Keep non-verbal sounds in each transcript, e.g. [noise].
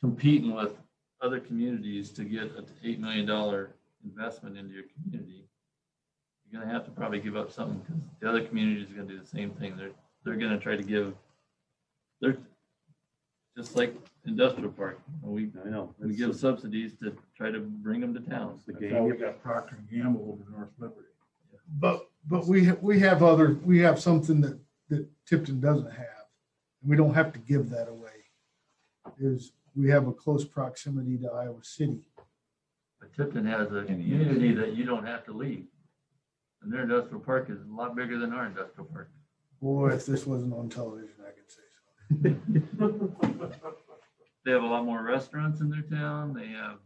competing with other communities to get an eight million dollar investment into your community, you're gonna have to probably give up something because the other community is gonna do the same thing. They're, they're gonna try to give, they're just like industrial park. We, I know. we give subsidies to try to bring them to towns. The That's how we game. got Procter and Gamble over North Liberty. But, but we, ha- we have other, we have something that, that Tipton doesn't have. We don't have to give that away. Is, we have a close proximity to Iowa City. But Tipton has a community that you don't have to leave. And their industrial park is a lot bigger than our industrial park. Boy, if this wasn't on television, I could say so. They have a lot more restaurants in their town. They have,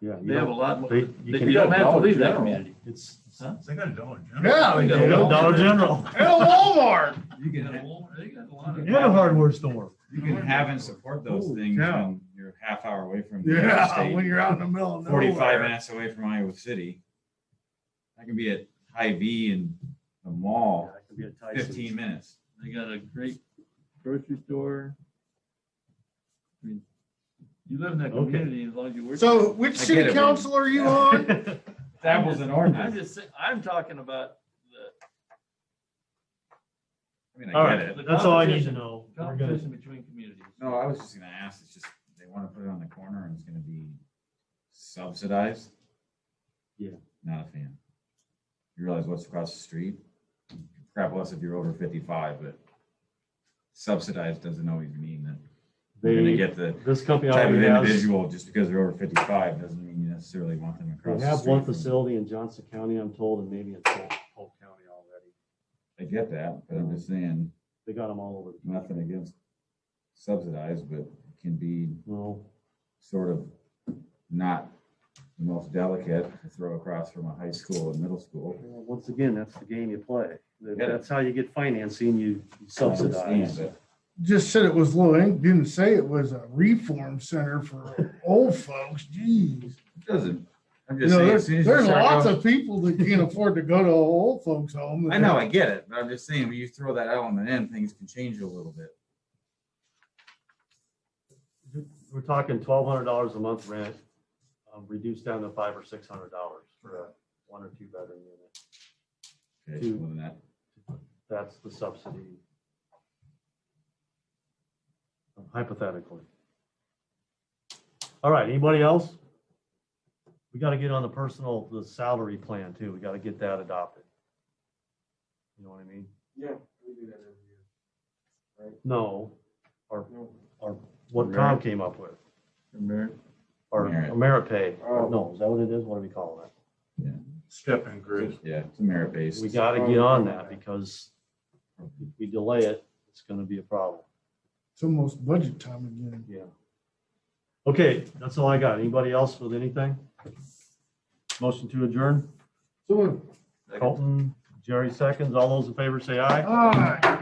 Yeah. you they have a don't- lot, more- they- they- you you can- don't have to Dollar leave that General. community. It's, Huh? They got a Dollar General. Yeah, they We got do. a Dollar General And a Walmart. [laughs] You can have, a Walmart. they got a lot of. and a hardware store. You can have and support those Holy things cow. when you're a half hour away from the Yeah, state, when you're out in the middle of nowhere. forty-five minutes away from Iowa City. I can be at Hy-Vee and the mall yeah, it could be a Tyson's. [laughs] fifteen minutes. They got a great grocery store. I mean, You live in that Okay. community as long as you work. there. So which I get city it, man. council are you on? It's apples [laughs] and I'm oranges. just, sa- I'm talking about the I mean, All I get right, it. that's all I need to know. We're good. competition between communities. No, I was just gonna ask, it's just, they wanna put it on the corner and it's gonna be subsidized? Yeah. Not a fan. You realize what's across the street? Crap less if you're over fifty-five, but subsidized doesn't always mean that you're gonna They, get the this company type of already has, individual, just because they're over fifty-five, doesn't mean you necessarily want them they across. the have street one from- facility in Johnson County, I'm told, and maybe in Polk Polk County already. I get that, but I'm just saying, They got them all over the country. nothing against subsidized, but it can be Well, sort of not the most delicate to throw across from a high school and middle school. well, once again, that's the game you play. That- Yeah. That's how you get financing, you subsidize. But Just said it was low ink, didn't say it was a reform center for old folks, jeez. It doesn't, I'm You just know, saying. there's, as soon as you there's start lots going- of people that can't afford to go to an old folks home. I know, I get it, but I'm just saying, when you throw that element in, things can change a little bit. We're talking twelve hundred dollars a month rent, um, reduced down to five or six hundred dollars for a one or two bedroom unit. Okay, Two. well, then that, That's the subsidy. Hypothetically. All right, anybody else? We gotta get on the personal, the salary plan too. We gotta get that adopted. You know what I mean? Yeah, we do that every year. No, or, No. or what Tom came up with, Remember? or Merit. Ameripay. Oh. No, is that what it is? What are we calling it? Step in group. yeah, it's a merit based. We gotta get on that because if we delay it, it's gonna be a problem. It's almost budget time again. Yeah. Okay, that's all I got. Anybody else with anything? Motion to adjourn. So, uh, Colton, Jerry seconds. All those in favor say aye. all right.